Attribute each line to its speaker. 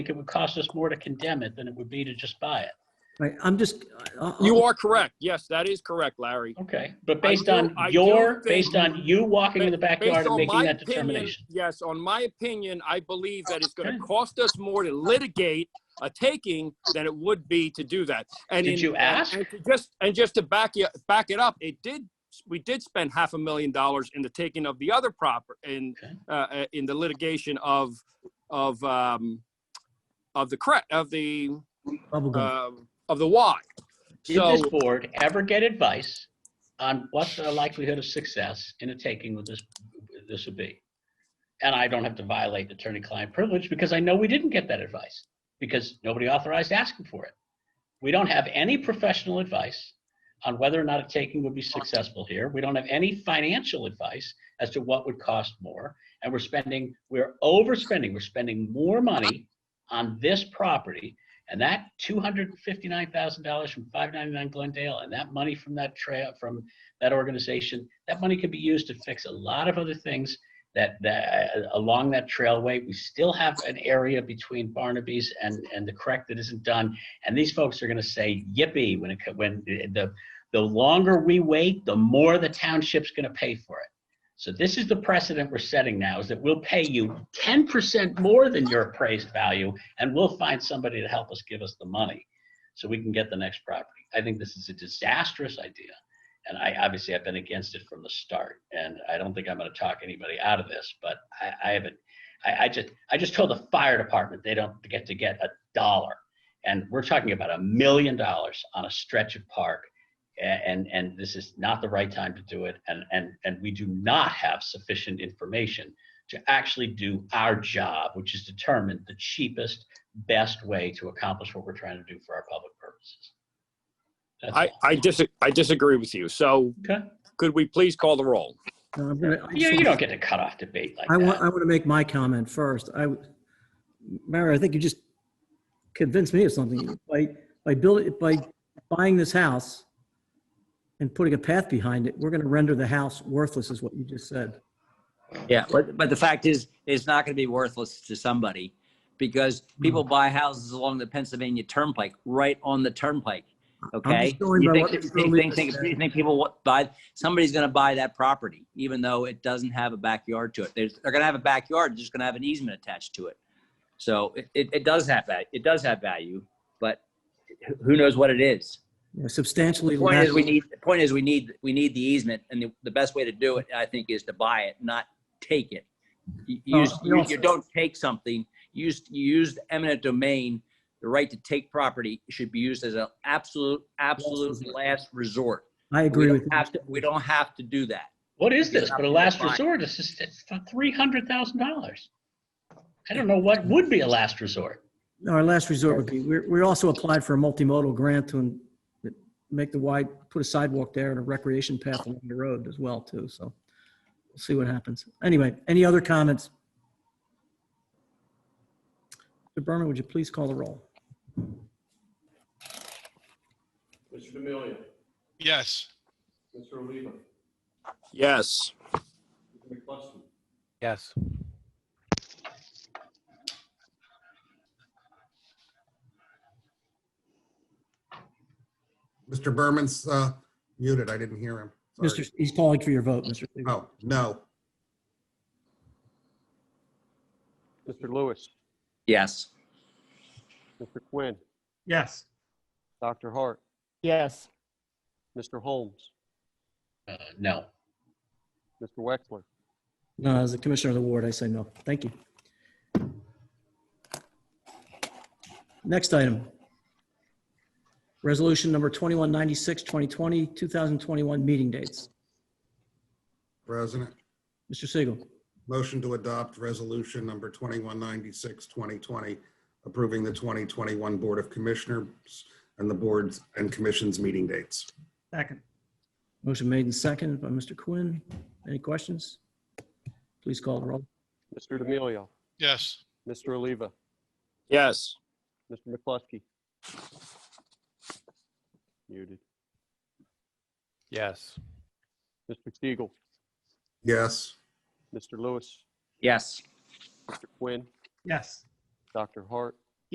Speaker 1: think it would cost us more to condemn it than it would be to just buy it.
Speaker 2: Right, I'm just. I- I-
Speaker 1: Oh.
Speaker 3: You are correct. Yes, that is correct, Larry.
Speaker 1: Okay, but
Speaker 3: I
Speaker 1: based
Speaker 3: do-
Speaker 1: on
Speaker 3: I do
Speaker 1: your,
Speaker 3: think-
Speaker 1: based on you walking in the backyard
Speaker 3: Based
Speaker 1: and
Speaker 3: on
Speaker 1: making
Speaker 3: my
Speaker 1: that
Speaker 3: opinion-
Speaker 1: determination.
Speaker 3: Yes, on my opinion, I believe that it's going
Speaker 1: Okay.
Speaker 3: to cost us more to litigate a taking than it would be to do that. And
Speaker 1: Did
Speaker 3: in-
Speaker 1: you ask?
Speaker 3: and to Just, and just to back you, back it up, it did, we did spend half a million dollars in the taking of the other proper, in,
Speaker 1: Okay.
Speaker 3: uh, uh, in the litigation of, of, um, of the cre, of the,
Speaker 1: uh,
Speaker 2: Bubblegum.
Speaker 3: um, of the Y.
Speaker 1: Did this
Speaker 3: So-
Speaker 1: board ever get advice on what the likelihood of success in a taking with this, this would be? And I don't have to violate attorney-client privilege because I know we didn't get that advice because nobody authorized asking for it. We don't have any professional advice on whether or not a taking would be successful here. We don't have any financial advice as to what would cost more. And we're spending, we're overspending, we're spending more money on this property and that two hundred and fifty-nine thousand dollars from five ninety-nine Glendale and that money from that trail, from that organization, that money could be used to fix a lot of other things that, that, uh, along that trailway. We still have an area between Barnaby's and, and the correct that isn't done. And these folks are gonna say yippee when it, co- when the, the longer we wait, the more the township's gonna pay for it. So this is the precedent we're setting now, is that we'll pay you ten percent more than your appraised value, and we'll find somebody to help us give us the money, so we can get the next property. I think this is a disastrous idea, and I, obviously, I've been against it from the start, and I don't think I'm gonna talk anybody out of this, but I, I haven't, I, I just, I just told the fire department they don't get to get a dollar, and we're talking about a million dollars on a stretch of park a- and and this is not the right time to do it and and and we do not have sufficient information to actually do our job which is determine the cheapest best way to accomplish what we're trying to do for our public purposes That's
Speaker 3: I,
Speaker 1: all.
Speaker 3: I dis, I disagree with you. So
Speaker 1: okay
Speaker 3: could we please call the roll?
Speaker 2: No, I'm gonna- I
Speaker 1: you,
Speaker 2: just
Speaker 1: you
Speaker 2: wanna-
Speaker 1: don't get to cut off debate like
Speaker 2: I
Speaker 1: that
Speaker 2: want, I want to make my comment first. I, w- Mario, I think you just convinced me of something. By, by building, by buying this house and putting a path behind it, we're going to render the house worthless is what you just said.
Speaker 4: Yeah, but, but the fact is, it's not going to be worthless to somebody because
Speaker 2: Hmm.
Speaker 4: people buy houses along the Pennsylvania Turnpike, right on the Turnpike. Okay?
Speaker 2: going by
Speaker 4: You think,
Speaker 2: what
Speaker 4: you
Speaker 2: Mr.
Speaker 4: think,
Speaker 2: Lewis
Speaker 4: think, think,
Speaker 2: said.
Speaker 4: you think people wa- buy, somebody's going to buy that property, even though it doesn't have a backyard to it. They're, they're going to have a backyard, they're just going to have an easement attached to it. So it, it, it does have that, it does have value, but who- who knows what it is?
Speaker 2: Yeah, Substantially.
Speaker 4: The point
Speaker 2: less-
Speaker 4: is, we need, the point is, we need, we need the easement, and the, the best way to do it, I think, is to buy it, not take it. You, you
Speaker 2: Oh,
Speaker 4: use-
Speaker 2: no,
Speaker 4: you, you
Speaker 2: sir.
Speaker 4: don't take something, you use, you use the eminent domain, the right to take property should be used as an absolute, absolute
Speaker 2: resort.
Speaker 4: last resort.
Speaker 2: I
Speaker 4: We
Speaker 2: agree with
Speaker 4: don't
Speaker 2: you.
Speaker 4: have to, we don't have to do that.
Speaker 1: what is this
Speaker 4: You're not
Speaker 1: but a
Speaker 4: gonna
Speaker 1: last
Speaker 4: find-
Speaker 1: resort this is it's for three hundred thousand dollars i don't know what would be a last resort
Speaker 2: Our last resort would be, we're, we also applied for a multimodal grant to en- make the wide, put a sidewalk there and a recreation path along the road as well too, so we'll see what happens. Anyway, any other comments? Mr. Berman, would you please call the roll?
Speaker 5: Mr. D'Amelio.
Speaker 6: Yes.
Speaker 5: Mr. Oliva.
Speaker 3: Yes.
Speaker 5: Mr. McCluskey.
Speaker 6: Yes.
Speaker 7: Mr. Berman's uh, muted. I didn't hear him. Sorry.
Speaker 2: Mr., he's calling for your vote, Mr. Segal.
Speaker 7: Oh, no.
Speaker 8: Mr. Lewis,
Speaker 4: Yes.
Speaker 8: Mr. Quinn,
Speaker 9: Yes.
Speaker 8: Dr. Hart,
Speaker 9: Yes.
Speaker 8: Mr. Holmes,
Speaker 1: uh, no
Speaker 8: Mr. Wexler.
Speaker 2: No, as the commissioner of the ward, I say no. Thank you. Next item. Resolution number 2196, 2020, 2021 meeting dates.
Speaker 7: President,
Speaker 2: Mr. Siegel.
Speaker 7: motion to adopt resolution number 2196, 2020, approving the 2021 Board of Commissioners and the boards and commissions meeting dates.
Speaker 9: Second.
Speaker 2: Motion made and seconded by Mr. Quinn. Any questions? Please call the roll.
Speaker 8: Mr. D'Amelio,
Speaker 6: Yes.
Speaker 8: Mr. Oliva,
Speaker 3: Yes.
Speaker 8: Mr. McCluskey. Muted.
Speaker 6: Yes.
Speaker 8: Mr. Siegel,
Speaker 7: Yes,
Speaker 8: Mr. Lewis,
Speaker 4: Yes.
Speaker 8: Mr. Quinn,
Speaker 9: Yes.
Speaker 8: Dr. Hart,